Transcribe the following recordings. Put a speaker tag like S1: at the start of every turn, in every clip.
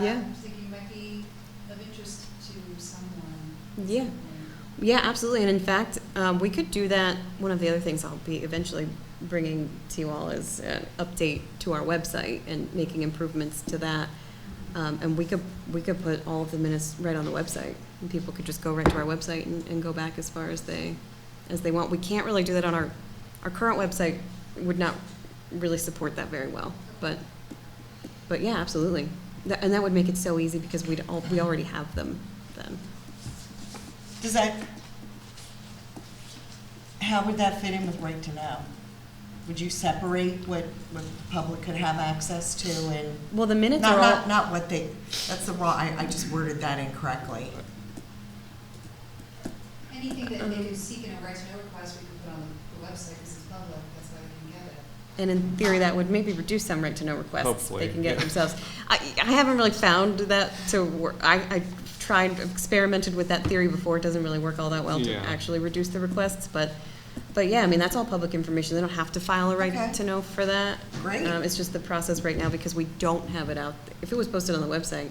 S1: Yeah.
S2: I'm thinking might be of interest to someone.
S1: Yeah. Yeah, absolutely. And in fact, um, we could do that. One of the other things I'll be eventually bringing to you all is an update to our website and making improvements to that. Um, and we could we could put all of the minutes right on the website, and people could just go right to our website and, and go back as far as they as they want. We can't really do that on our our current website. Would not really support that very well, but but yeah, absolutely. That, and that would make it so easy because we'd all, we already have them then.
S3: Does that, how would that fit in with right to know? Would you separate what, what the public could have access to and,
S1: Well, the minutes
S3: not,
S1: are all.
S3: not, not what they, that's the wrong, I, I just worded that incorrectly.
S2: Anything that
S1: Um,
S2: they could seek in a right to know request, we could put on the website, because it's public, that's why we can get it.
S1: And in theory, that would maybe reduce some right to know requests
S4: Hopefully,
S1: they can get
S4: yeah.
S1: themselves. I, I haven't really found that to work. I, I tried, experimented with that theory before. It doesn't really work all that well to
S4: Yeah.
S1: actually reduce the requests. But, but yeah, I mean, that's all public information. They don't have to file a right
S3: Okay.
S1: to know for that.
S3: Great.
S1: Um, it's just the process right now because we don't have it out. If it was posted on the website,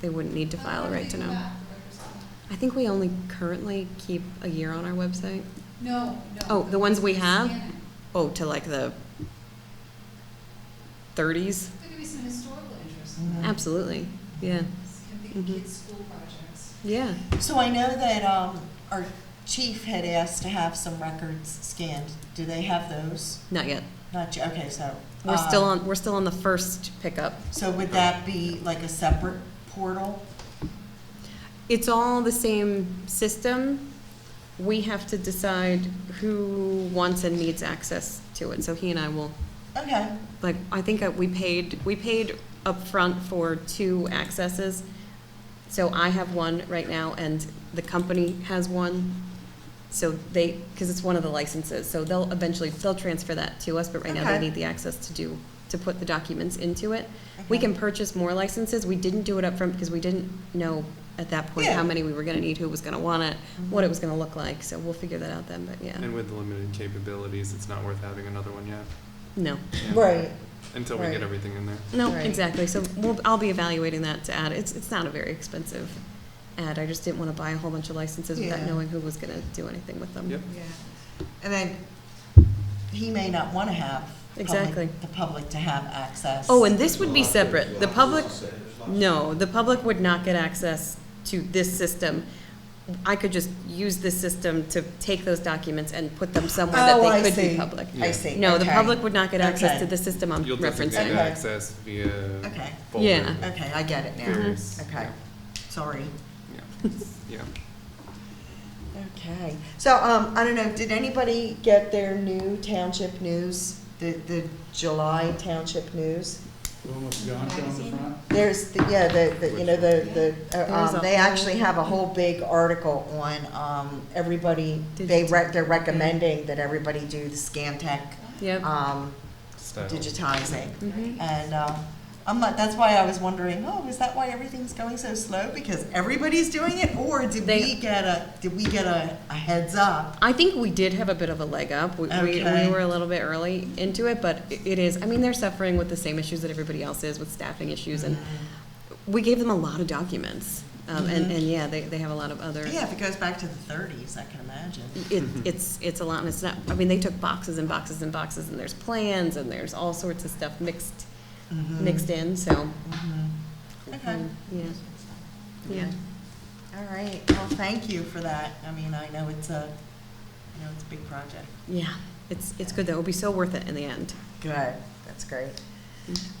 S1: they wouldn't need to
S2: How
S1: file a
S2: far do
S1: right
S2: they
S1: to
S2: go
S1: know.
S2: back, the records go-
S1: I think we only currently keep a year on our website.
S2: No, no.
S1: Oh, the ones we
S2: we
S1: have?
S2: scan it.
S1: Oh, to like the 30s.
S2: There could be some historical interest.
S1: Mm-hmm.
S3: Mhm.
S1: Absolutely. Yeah.
S2: Can think of
S1: Mhm.
S2: kids' school projects.
S1: Yeah.
S3: So I know that, um, our chief had asked to have some records scanned. Do they have those?
S1: Not yet.
S3: Not, y- okay, so.
S1: We're still
S3: um,
S1: on. We're still on the first pickup.
S3: So would that be like a separate portal?
S1: It's all the same system. We have to decide who wants and needs access to it. So he and I will.
S3: Okay,
S1: Like I think uh, we paid. We paid upfront for two accesses. So I have one right now, and the company has one. So they, because it's one of the licenses, so they'll eventually they'll transfer that to us. But right now they
S3: Okay.
S1: need the access to do to put the documents into it. We can purchase more licenses. We didn't do it up front because we didn't know at that point how
S3: Yeah.
S1: many we were gonna need, who was gonna want it, what it was gonna look like, so we'll figure that out then, but yeah.
S4: And with the limited capabilities, it's not worth having another one yet.
S1: No,
S4: Yeah. Until we
S3: right.
S4: get everything in there.
S1: no,
S3: Right.
S1: exactly, so we'll, I'll be evaluating that to add, it's, it's not a very expensive ad, I just didn't wanna buy a whole bunch of licenses without
S3: Yeah.
S1: knowing who was gonna do anything with them.
S4: Yep.
S2: Yeah.
S3: And then he may not want to have public-
S1: Exactly.
S3: the public to have access.
S1: Oh, and this would be separate, the public, no, the public would not get access to this system. I could just use this system to take those documents and put them somewhere
S3: Oh,
S1: that
S3: I
S1: they could be
S3: see.
S1: public.
S3: I
S4: Yeah.
S3: see.
S1: No, the
S3: okay.
S1: public would not get access
S3: Okay.
S1: to the system I'm
S4: You'll designate
S1: referencing.
S3: Okay.
S4: access via
S3: Okay.
S4: folder.
S1: Yeah.
S3: Okay, I get it
S1: Mm-hmm.
S3: now.
S4: Various-
S3: Okay, sorry.
S4: Yeah, yeah.
S3: Okay. So, um, I don't know, did anybody get their new township news, the, the July township news?
S5: The one with the Goncho on the front?
S3: There's, the yeah, the, the, you know, the, the,
S1: There's
S3: uh,
S1: a
S3: um, they
S1: whole-
S3: actually have a whole big article on, um, everybody, they
S1: Digit-
S3: rec, they're recommending that everybody do the Scantech,
S1: Yep.
S3: um,
S4: Style.
S3: digitizing.
S1: Mhm.
S3: And um, I'm not, that's why I was wondering, oh, is that why everything's going so slow? Because everybody's doing it, or did
S1: They-
S3: we get a did we get a, a heads up?
S1: I think we did have a bit of a leg up. We, we, we
S3: Okay.
S1: were a little bit early into it, but i- it is, I mean, they're suffering with the same issues that everybody else is with staffing issues. And
S3: Mm-hmm.
S1: we gave them a lot of documents. Um, and,
S3: Mhm.
S1: and yeah, they, they have a lot of other,
S3: Yeah, if it goes back to the 30s, I can imagine.
S1: it, it's, it's a lot. And it's not, I mean, they took boxes and boxes and boxes and there's plans and there's all sorts of stuff mixed,
S3: Mhm.
S1: mixed in. So,
S3: Mhm. Okay.
S1: um, yeah, yeah.
S3: Okay. All right. Well, thank you for that. I mean, I know it's a, I know it's a big project.
S1: Yeah. It's, it's good though. It'll be so worth it in the end.
S3: Good, that's great.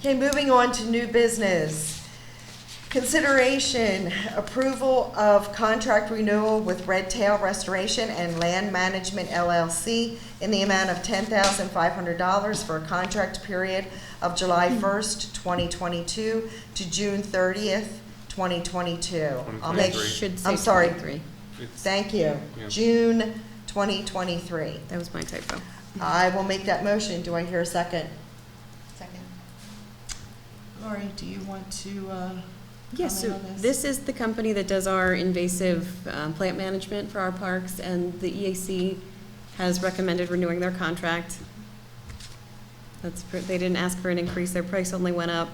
S3: Okay, moving on to new business. Consideration, approval of contract renewal with Red Tail Restoration and Land Management LLC in the amount of ten thousand five hundred dollars for a contract period of July first, twenty twenty-two to June thirtieth, twenty twenty-two. I'll
S1: That
S3: make,
S4: Twenty-three.
S1: should say
S3: I'm sorry,
S1: 23.
S4: It's-
S3: thank you,
S4: Yeah.
S3: June twenty twenty-three.
S1: That was my typo.
S3: I will make that motion. Do I hear a second?
S2: Second.
S3: Lori, do you want to, uh,
S1: Yes, so
S3: comment on this?
S1: this is the company that does our invasive um, plant management for our parks, and the EAC has recommended renewing their contract. That's, pr- they didn't ask for an increase, their price only went up.